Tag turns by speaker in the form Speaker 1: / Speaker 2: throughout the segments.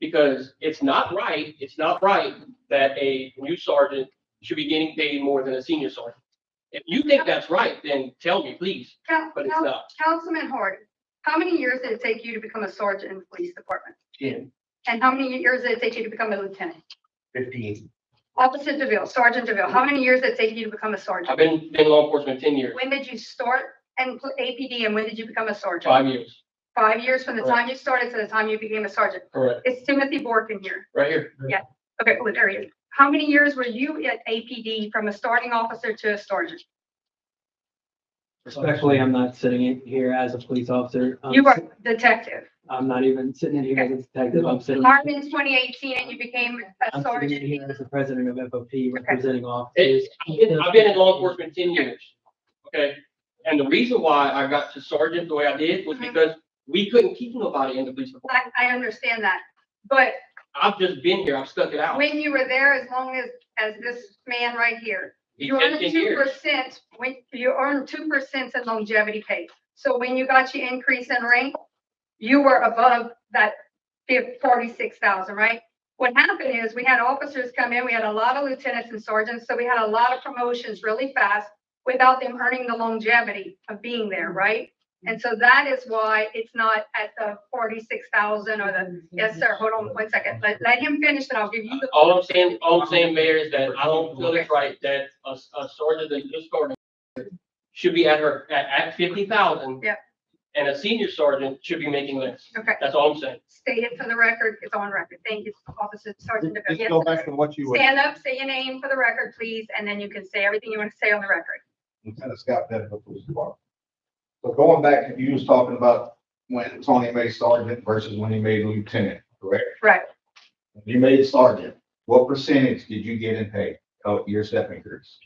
Speaker 1: Because it's not right, it's not right that a new sergeant should be getting paid more than a senior sergeant. If you think that's right, then tell me, please,
Speaker 2: Coun-
Speaker 1: but it's
Speaker 2: coun-
Speaker 1: not.
Speaker 2: Councilman Horde, how many years did it take you to become a sergeant in the police department?
Speaker 1: Ten.
Speaker 2: And how many years did it take you to become a lieutenant?
Speaker 1: Fifteen.
Speaker 2: Officer DeVille, Sergeant DeVille, how many years did it take you to become a
Speaker 1: I've
Speaker 2: sergeant?
Speaker 1: been, been in law enforcement ten years,
Speaker 2: When did you start and pl- APD and when did you become a sergeant?
Speaker 1: five years,
Speaker 2: Five years from the
Speaker 1: Correct.
Speaker 2: time you started to the time you became a sergeant.
Speaker 1: correct,
Speaker 2: It's Timothy Borkin here.
Speaker 1: right here.
Speaker 2: Okay, what area? How many years were you at APD from a starting officer to a sergeant?
Speaker 3: Respectfully, I'm not sitting in here as a police officer. I'm
Speaker 2: You were
Speaker 3: sit-
Speaker 2: a detective.
Speaker 3: I'm not even sitting in here as a detective. I'm sitting,
Speaker 2: Hired in 2018 and you became a
Speaker 3: I'm sitting in
Speaker 2: sergeant.
Speaker 3: here as the president of FOP representing officers.
Speaker 1: It's, I've been- I've been in law enforcement ten years, okay? And the reason why I got to sergeant the way I did was
Speaker 2: Mhm.
Speaker 1: because we couldn't keep nobody in the police department.
Speaker 2: I, I understand that. But
Speaker 1: I've just been here, I've stuck it out.
Speaker 2: when you were there, as long as, as this man right here,
Speaker 1: It's
Speaker 2: you earned
Speaker 1: 10
Speaker 2: two
Speaker 1: years.
Speaker 2: percent, when, you earned two percent in longevity pay. So when you got your increase in rank, you were above that forty-six thousand, right? What happened is, we had officers come in, we had a lot of lieutenants and sergeants, so we had a lot of promotions really fast without them earning the longevity of being there, right? And so that is why it's not at the forty-six thousand or the, yes, sir, hold on one second, let, let him finish and I'll give you the.
Speaker 1: All I'm saying, all I'm saying, Mayor, is that I don't feel it's right that a, a sergeant that just started should be at her, at, at fifty thousand.
Speaker 2: Yeah.
Speaker 1: And a senior sergeant should be making less.
Speaker 2: Okay.
Speaker 1: That's all I'm saying.
Speaker 2: State it for the record, it's on record. Thank you, Officer Sergeant DeVille.
Speaker 4: Just
Speaker 2: Yes,
Speaker 4: go
Speaker 2: sir.
Speaker 4: back to what you were,
Speaker 2: Stand up, say your name for the record, please, and then you can say everything you want to say on the record.
Speaker 4: Lieutenant Scott Benfield, police department. So going back, you was talking about when Tony made sergeant versus when he made lieutenant, correct?
Speaker 2: Right.
Speaker 4: When You made sergeant, what percentage did you get in pay of your step increase?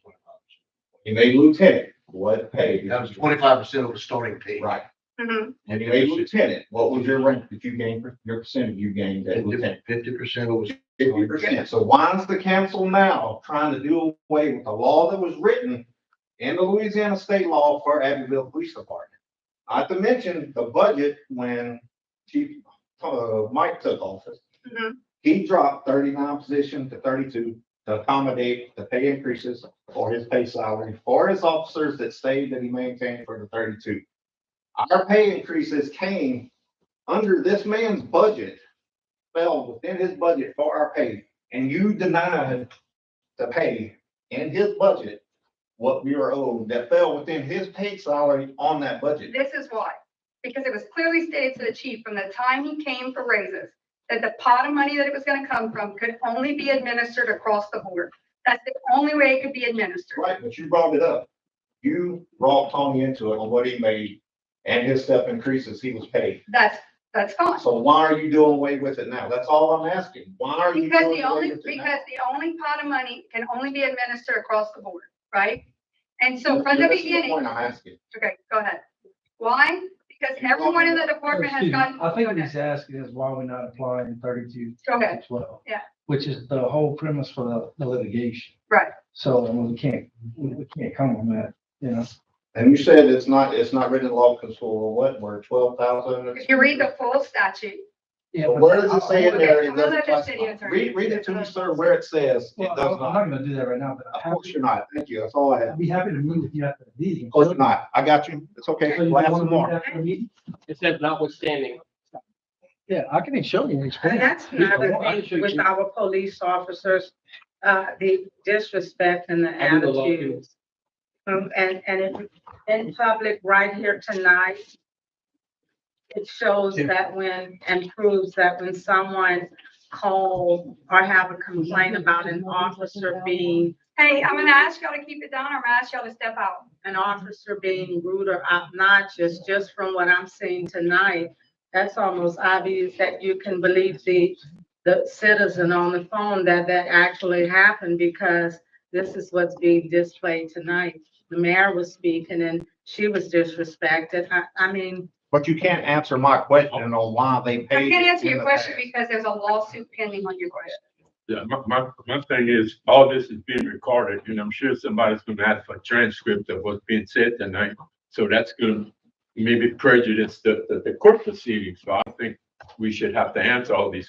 Speaker 4: You made lieutenant, what pay? did you-
Speaker 5: That was twenty-five percent of the starting pay.
Speaker 4: Right.
Speaker 2: Mhm.
Speaker 4: When you made lieutenant, what was your rank that you gained, your percentage you gained as lieutenant?
Speaker 5: Fifty percent was,
Speaker 4: fifty percent. So why is the council now trying to do away with the law that was written in the Louisiana state law for Abbeville Police Department? Not to mention the budget when Chief, uh, Mike took office.
Speaker 2: Mhm.
Speaker 4: He dropped thirty-nine positions to thirty-two to accommodate the pay increases for his pay salary for his officers that stayed that he maintained for the thirty-two. Our pay increases came under this man's budget fell within his budget for our pay, and you denied to pay in his budget what we were owed that fell within his paid salary on that budget.
Speaker 2: This is why, because it was clearly stated to the chief from the time he came for raises that the pot of money that it was going to come from could only be administered across the board. That's the only way it could be administered.
Speaker 4: Right, but you brought it up. You brought Tony into it on what he made and his step increases he was paid.
Speaker 2: That's, that's fine.
Speaker 4: So why are you doing away with it now? That's all I'm asking. Why are you
Speaker 2: Because
Speaker 4: doing
Speaker 2: the
Speaker 4: away
Speaker 2: only,
Speaker 4: with it now?
Speaker 2: because the only pot of money can only be administered across the board, right? And so from
Speaker 4: That's
Speaker 2: the
Speaker 4: the
Speaker 2: beginning.
Speaker 4: Point I'm asking.
Speaker 2: Okay, go ahead. Why? Because
Speaker 4: You
Speaker 2: everyone
Speaker 4: want-
Speaker 2: in the department has gotten.
Speaker 6: I think what
Speaker 2: Go
Speaker 6: he's asking is why we're not applying thirty-two
Speaker 2: ahead.
Speaker 6: to twelve.
Speaker 2: Yeah.
Speaker 6: Which is the whole premise for the- the litigation.
Speaker 2: Right.
Speaker 6: So I mean, we can't, we we can't come on that, you know?
Speaker 4: And you said it's not, it's not written in law because for what, we're twelve thousand?
Speaker 2: If you read the full statute,
Speaker 6: Yeah,
Speaker 4: But what does it say in there?
Speaker 2: Okay,
Speaker 4: It
Speaker 2: I'm gonna
Speaker 4: doesn't
Speaker 2: let the city
Speaker 4: classify.
Speaker 2: attorney-
Speaker 4: Read, read it to me, sir, where it says it
Speaker 6: Well,
Speaker 4: does
Speaker 6: I'm not
Speaker 4: not.
Speaker 6: gonna do that right now, but
Speaker 4: Of
Speaker 6: I'm
Speaker 4: course
Speaker 6: happy,
Speaker 4: you're not. Oh, Thank you. That's all I
Speaker 6: I'd
Speaker 4: have.
Speaker 6: be happy to meet with you after the meeting.
Speaker 4: Of course you're not. I got you. It's okay.
Speaker 6: So you
Speaker 4: We'll have
Speaker 6: wanna
Speaker 4: some
Speaker 6: meet
Speaker 4: more.
Speaker 6: after the meeting?
Speaker 1: It says notwithstanding.
Speaker 6: Yeah, I can show you. and explain.
Speaker 7: And that's
Speaker 6: Yeah,
Speaker 7: another
Speaker 6: well, I can show
Speaker 7: thing with
Speaker 6: you.
Speaker 7: our police officers, uh, the disrespect and the
Speaker 1: I do the law too.
Speaker 7: attitudes. Um, and, and in- in public right here tonight, it shows
Speaker 6: Yeah.
Speaker 7: that when, and proves that when someone calls or have a complaint about an officer being,
Speaker 2: hey, I'm gonna ask y'all to keep it down or I'm gonna ask y'all to step out.
Speaker 7: an officer being rude or obnoxious, just from what I'm seeing tonight, that's almost obvious that you can believe the, the citizen on the phone that that actually happened because this is what's being displayed tonight. The mayor was speaking and she was disrespected. I, I mean,
Speaker 4: But you can't answer my question on why they
Speaker 2: Oh. I
Speaker 4: paid.
Speaker 2: can't answer
Speaker 4: in
Speaker 2: your
Speaker 4: the
Speaker 2: question
Speaker 4: past.
Speaker 2: because there's a lawsuit pending on your question.
Speaker 8: Yeah, my, my, my thing is, all this is being recorded, and I'm sure somebody's gonna ask for a transcript of what's being said tonight. So that's gonna maybe prejudice the, the, the court proceedings, so I think we should have to answer all these